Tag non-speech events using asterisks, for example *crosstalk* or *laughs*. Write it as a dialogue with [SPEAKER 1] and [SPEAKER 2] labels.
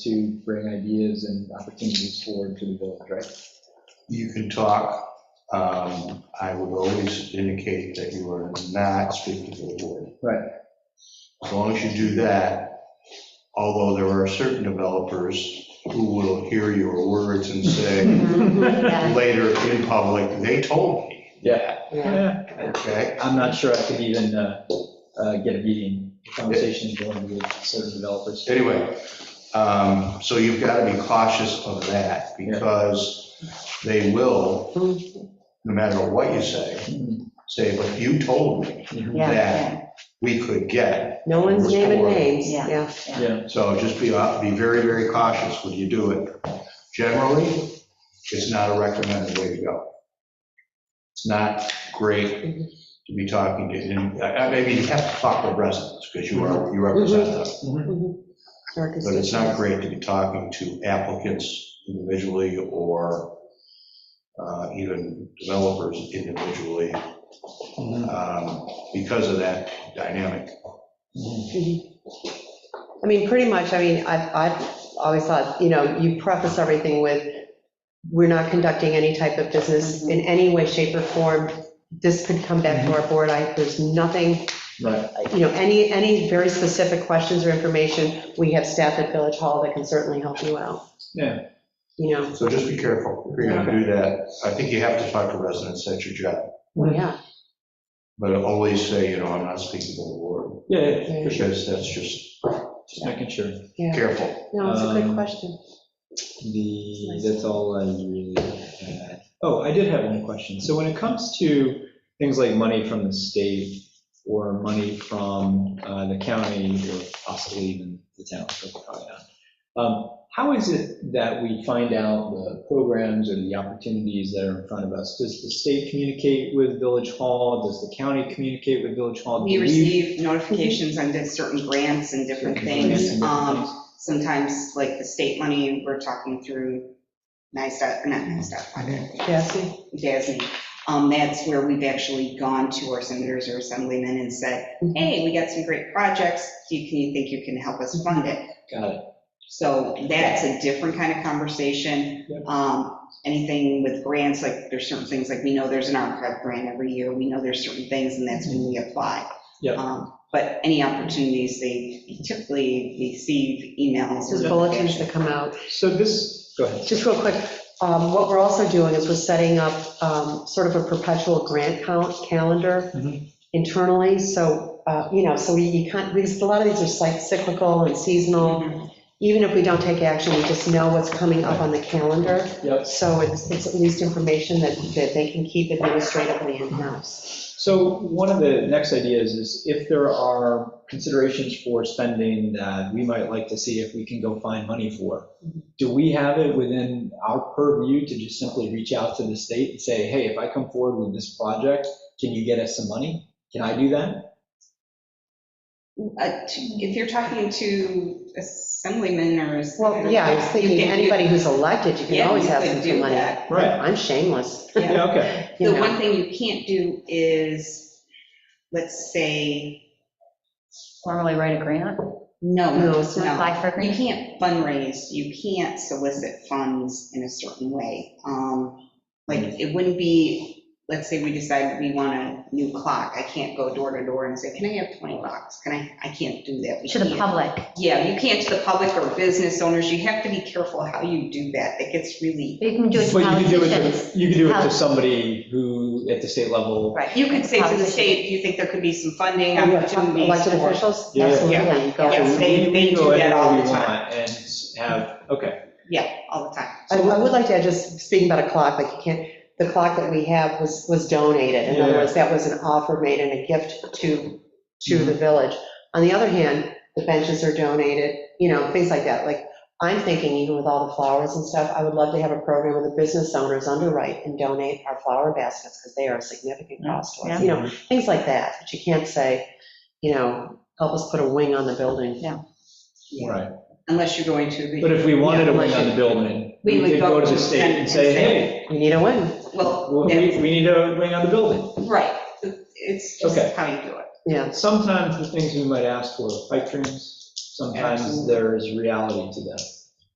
[SPEAKER 1] to bring ideas and opportunities forward to the village, right?
[SPEAKER 2] You can talk. Um, I would always indicate that you are not speaking to the board.
[SPEAKER 1] Right.
[SPEAKER 2] As long as you do that, although there are certain developers who will hear your words and
[SPEAKER 3] *laughs*
[SPEAKER 2] say
[SPEAKER 3] Mm-hmm.
[SPEAKER 4] Yeah,
[SPEAKER 2] later in public, they told me,
[SPEAKER 1] Yeah.
[SPEAKER 4] yeah.
[SPEAKER 2] okay?
[SPEAKER 1] I'm not sure I could even uh, uh, get a meeting, conversation going with certain developers.
[SPEAKER 2] Anyway, um, so you've got to be cautious of that because they will, no matter what you say,
[SPEAKER 1] Mhm.
[SPEAKER 2] say, but you told me
[SPEAKER 4] Yeah,
[SPEAKER 2] that we could get
[SPEAKER 3] No one's naming names,
[SPEAKER 4] Yeah.
[SPEAKER 3] yeah.
[SPEAKER 1] Yeah,
[SPEAKER 2] So just be, uh, be very, very cautious when you do it. Generally, it's not a recommended way to go. It's not great to be talking to, and I- I- maybe you have to talk to residents because you are, you represent them. But it's not great to be talking to applicants individually or uh, even developers individually
[SPEAKER 1] Mhm.
[SPEAKER 2] um, because of that dynamic.
[SPEAKER 3] I mean, pretty much, I mean, I've, I've always thought, you know, you preface everything with, we're not conducting any type of business in any way, shape, or form. This could come back to our board. I, there's nothing,
[SPEAKER 1] right.
[SPEAKER 3] you know, any, any very specific questions or information, we have staff at Village Hall that can certainly help you out.
[SPEAKER 1] Yeah.
[SPEAKER 3] You know,
[SPEAKER 2] So just be careful. If you're going to do that, I think you have to talk to residents. That's your job.
[SPEAKER 3] well, yeah.
[SPEAKER 2] But I always say, you know, I'm not speaking to the board,
[SPEAKER 1] Yeah, yeah,
[SPEAKER 3] yeah.
[SPEAKER 2] because that's just
[SPEAKER 1] just making sure.
[SPEAKER 2] careful.
[SPEAKER 3] No, it's a
[SPEAKER 1] Um,
[SPEAKER 3] good question.
[SPEAKER 1] The, that's all I really had. Oh, I did have one question. So when it comes to things like money from the state or money from uh, the county or possibly even the town, but probably not, um, how is it that we find out the programs or the opportunities that are in front of us? Does the state communicate with Village Hall? Does the county communicate with Village Hall?
[SPEAKER 4] We
[SPEAKER 1] Do
[SPEAKER 4] receive notifications on di- certain grants and different things. Um, Sometimes, like the state money, we're talking through NISTOC, or not NISTOC,
[SPEAKER 3] Cassie?
[SPEAKER 4] DASME. Um, That's where we've actually gone to our senators or assemblymen and said, hey, we got some great projects, do you, can you think you can help us fund it?
[SPEAKER 1] Got it.
[SPEAKER 4] So that's a different kind of conversation.
[SPEAKER 1] Yep.
[SPEAKER 4] Um, Anything with grants, like there's certain things, like we know there's an archive grant every year, we know there's certain things, and that's when we apply.
[SPEAKER 1] Yep.
[SPEAKER 4] Um, But any opportunities, they typically receive emails.
[SPEAKER 3] Those bulletins that come out.
[SPEAKER 1] So this, go ahead.
[SPEAKER 3] Just real quick, um, what we're also doing is we're setting up um, sort of a perpetual grant count calendar
[SPEAKER 1] Mhm.
[SPEAKER 3] internally, so, uh, you know, so we you can't, because a lot of these are cyc- cyclical and seasonal.
[SPEAKER 4] Mhm.
[SPEAKER 3] Even if we don't take action, we just know what's coming up on the calendar,
[SPEAKER 1] Yep.
[SPEAKER 3] so it's it's at least information that that they can keep administratively in-house.
[SPEAKER 1] So one of the next ideas is if there are considerations for spending that we might like to see if we can go find money for, do we have it within our purview to just simply reach out to the state and say, hey, if I come forward with this project, can you get us some money? Can I do that?
[SPEAKER 4] Uh, to- If you're talking to assemblymen or.
[SPEAKER 3] Well, yeah, I was thinking,
[SPEAKER 4] You can do-
[SPEAKER 3] anybody who's elected, you
[SPEAKER 4] Yeah,
[SPEAKER 3] can always
[SPEAKER 4] you
[SPEAKER 3] have
[SPEAKER 4] could
[SPEAKER 3] some
[SPEAKER 4] do
[SPEAKER 3] money.
[SPEAKER 4] that.
[SPEAKER 1] Right.
[SPEAKER 3] I'm shameless,
[SPEAKER 4] Yeah.
[SPEAKER 1] Yeah, okay.
[SPEAKER 3] you
[SPEAKER 4] The
[SPEAKER 3] know.
[SPEAKER 4] one thing you can't do is, let's say,
[SPEAKER 5] Formally write a grant,
[SPEAKER 4] no,
[SPEAKER 3] No,
[SPEAKER 4] no.
[SPEAKER 3] it's
[SPEAKER 5] apply for a
[SPEAKER 4] You
[SPEAKER 5] grant.
[SPEAKER 4] can't fundraise, you can't solicit funds in a certain way. Um, Like, it wouldn't be, let's say we decide we want a new clock, I can't go door to door and say, can I have 20 bucks? Can I, I can't do that. We
[SPEAKER 5] To the
[SPEAKER 4] can't.
[SPEAKER 5] public,
[SPEAKER 4] Yeah, you can't to the public or business owners, you have to be careful how you do that, that gets really,
[SPEAKER 5] you can do it to
[SPEAKER 1] But you could do it to-
[SPEAKER 5] politicians.
[SPEAKER 1] You could do it to somebody who, at the state level,
[SPEAKER 5] Right.
[SPEAKER 4] you could say to the
[SPEAKER 5] Politicians.
[SPEAKER 4] state, you think there could be some funding opportunities.
[SPEAKER 3] Elected
[SPEAKER 4] for-"
[SPEAKER 3] officials,
[SPEAKER 1] Yeah.
[SPEAKER 3] absolutely, you go for
[SPEAKER 4] Yeah. Yes, they-
[SPEAKER 1] We-
[SPEAKER 4] they
[SPEAKER 1] we go
[SPEAKER 4] do that
[SPEAKER 1] anywhere
[SPEAKER 4] all
[SPEAKER 1] we
[SPEAKER 4] the time.
[SPEAKER 1] want And have, okay,
[SPEAKER 4] Yeah, all the time.
[SPEAKER 3] I I would like to add, just speaking about a clock, like you can't, the clock that we have was, was donated. In other
[SPEAKER 1] Yeah.
[SPEAKER 3] words, that was an offer made and a gift to, to the village. On the other hand, the benches are donated, you know, things like that. Like, I'm thinking even with all the flowers and stuff, I would love to have a program where the business owners underwrite and donate our flower baskets because they are a significant cost to us, you know, things like that. But you can't say, you know, help us put a wing on the building.
[SPEAKER 4] Yeah.
[SPEAKER 1] right.
[SPEAKER 4] Unless you're going to. the-
[SPEAKER 1] But if we wanted a
[SPEAKER 4] Yeah,
[SPEAKER 1] wing
[SPEAKER 4] unless
[SPEAKER 1] on the
[SPEAKER 4] you-
[SPEAKER 1] building,
[SPEAKER 4] We
[SPEAKER 1] we
[SPEAKER 4] would
[SPEAKER 1] could
[SPEAKER 4] go
[SPEAKER 1] go to
[SPEAKER 4] to
[SPEAKER 1] the
[SPEAKER 4] the
[SPEAKER 1] state
[SPEAKER 4] Senate
[SPEAKER 1] and
[SPEAKER 4] and
[SPEAKER 1] say,
[SPEAKER 4] say,
[SPEAKER 1] hey,
[SPEAKER 3] We need a wing.
[SPEAKER 4] Well,
[SPEAKER 1] well, we,
[SPEAKER 4] that's-
[SPEAKER 1] we need a wing on the building.
[SPEAKER 4] right, it's
[SPEAKER 1] Okay.
[SPEAKER 4] just how you do it.
[SPEAKER 3] Yeah,
[SPEAKER 1] Sometimes the things we might ask for are pipe dreams, sometimes
[SPEAKER 4] Absolutely.
[SPEAKER 1] there is reality to them.